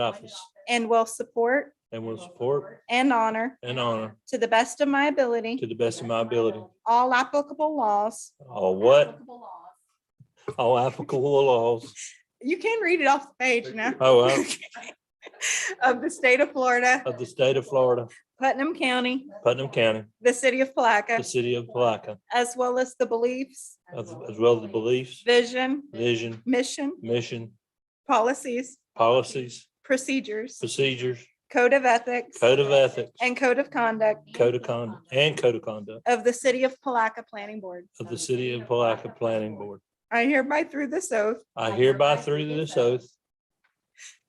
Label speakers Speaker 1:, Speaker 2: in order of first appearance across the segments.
Speaker 1: office
Speaker 2: and will support
Speaker 1: and will support
Speaker 2: and honor
Speaker 1: and honor
Speaker 2: to the best of my ability
Speaker 1: to the best of my ability
Speaker 2: all applicable laws.
Speaker 1: all what, all applicable laws.
Speaker 2: You can read it off the page now.
Speaker 1: Oh, uh,
Speaker 2: Of the state of Florida,
Speaker 1: of the state of Florida,
Speaker 2: Putnam County,
Speaker 1: Putnam County,
Speaker 2: the city of
Speaker 1: the
Speaker 2: Palaca,
Speaker 1: city of Palaca,
Speaker 2: as well as the beliefs,
Speaker 1: as as well as the beliefs,
Speaker 2: vision,
Speaker 1: vision,
Speaker 2: mission,
Speaker 1: mission,
Speaker 2: policies,
Speaker 1: policies,
Speaker 2: procedures,
Speaker 1: procedures,
Speaker 2: code of ethics,
Speaker 1: code of ethics,
Speaker 2: and code of conduct
Speaker 1: code of conduct, and code of conduct
Speaker 2: of the city of Palaca Planning Board.
Speaker 1: of the city of Palaca Planning Board.
Speaker 2: I hereby through this oath
Speaker 1: I hereby through this oath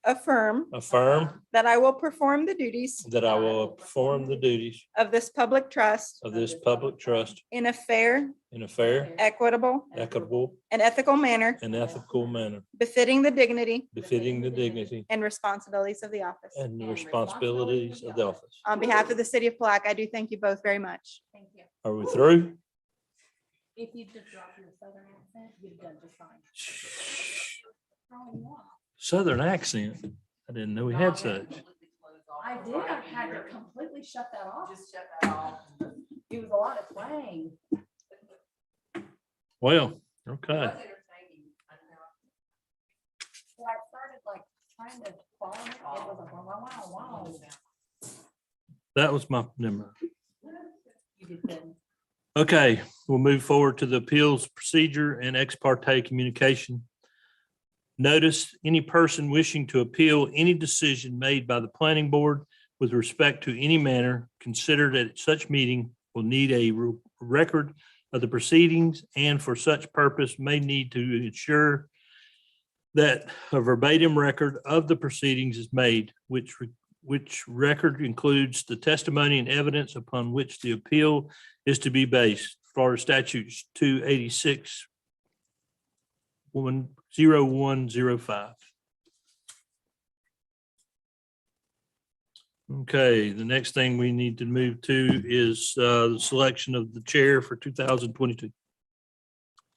Speaker 2: affirm
Speaker 1: affirm
Speaker 2: that I will perform the duties
Speaker 1: that I will perform the duties
Speaker 2: of this public trust
Speaker 1: of this public trust
Speaker 2: in a fair,
Speaker 1: in a fair,
Speaker 2: equitable,
Speaker 1: equitable,
Speaker 2: and ethical manner
Speaker 1: and ethical manner
Speaker 2: befitting the dignity
Speaker 1: befitting the dignity
Speaker 2: and responsibilities of the office.
Speaker 1: and the responsibilities of the office.
Speaker 2: On behalf of the city of Palaca, I do thank you both very much.
Speaker 3: Thank you.
Speaker 1: Are we through?
Speaker 3: If you just drop your southern accent, you've done just fine. Oh, you are.
Speaker 1: Southern accent. I didn't know we had such.
Speaker 3: I did, I had to completely shut that off. Just shut that off. It was a lot of twang.
Speaker 1: Well,
Speaker 3: It
Speaker 1: okay.
Speaker 3: was entertaining, I know. Well, I started like trying to follow it, it was like, wow, wow, wow, wow.
Speaker 1: That was my number.
Speaker 3: You did good.
Speaker 1: Okay, we'll move forward to the appeals procedure and ex parte communication. Notice, any person wishing to appeal any decision made by the planning board with respect to any manner considered at such meeting will need a re- record of the proceedings and for such purpose may need to ensure that a verbatim record of the proceedings is made, which, re- which record includes the testimony and evidence upon which the appeal is to be based. Florida statutes two eighty-six one zero one zero five. Okay, the next thing we need to move to is uh, the selection of the chair for two thousand twenty-two.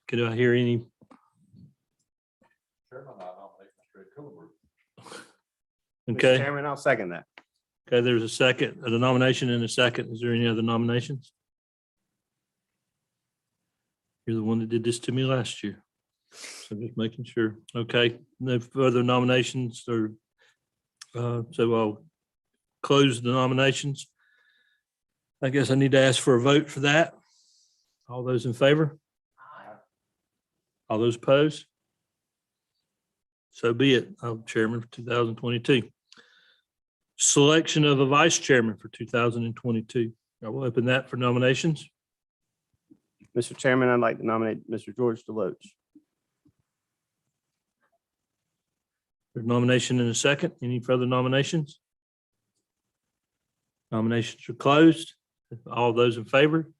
Speaker 1: Can I hear any?
Speaker 4: Chairman, I nominate Mr. Ed Cooper.
Speaker 5: Mr.
Speaker 1: Okay,
Speaker 5: Chairman, I'll second that.
Speaker 1: okay, there's a second, a nomination and a second. Is there any other nominations? You're the one that did this to me last year. So just making sure. Okay, no further nominations or uh, so I'll close the nominations. I guess I need to ask for a vote for that. All those in favor? All those opposed? So be it. I'm chairman for two thousand twenty-two. Selection of a vice chairman for two thousand and twenty-two. I will open that for nominations.
Speaker 5: Mr. Chairman, I'd like to nominate Mr. George Deloach.
Speaker 1: There's nomination in a second. Any further nominations? Nominations are closed. All those in favor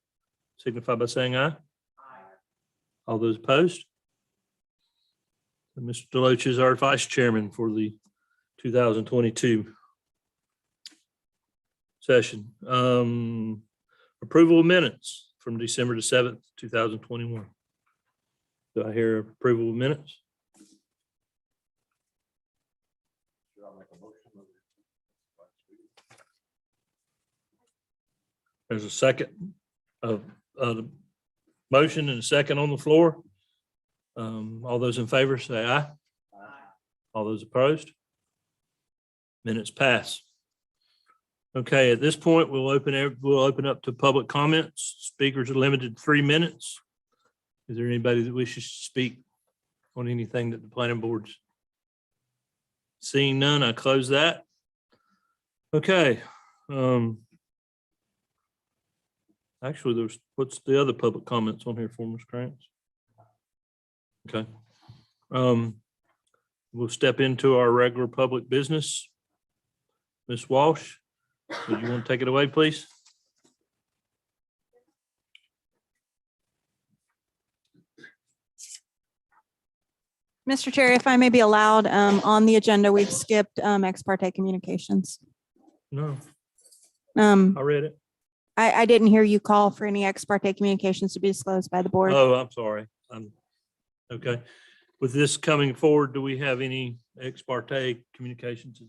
Speaker 1: signify by saying aye. All those opposed? And Mr. Deloach is our vice chairman for the 2022 session. Um, Approval of minutes from December the 7th, 2021. Do I hear approval of minutes?
Speaker 4: Should I make a motion?
Speaker 1: There's a second of, of the motion and a second on the floor. Um, all those in favor say aye. All those opposed? Minutes pass. Okay, at this point, we'll open, ev- we'll open up to public comments. Speakers are limited to three minutes. Is there anybody that wishes to speak on anything that the planning board's? Seeing none, I close that. Okay, um. Actually, there's, what's the other public comments on here for Ms. Krantz? Okay. Um, we'll step into our regular public business. Ms. Walsh, would you want to take it away, please?
Speaker 2: Mr. Chair, if I may be allowed, um, on the agenda, we've skipped, um, ex parte communications.
Speaker 1: No,
Speaker 2: Um,
Speaker 1: I read it.
Speaker 2: I, I didn't hear you call for any ex parte communications to be disclosed by the board.
Speaker 1: Oh, I'm sorry. I'm, okay. With this coming forward, do we have any ex parte communications?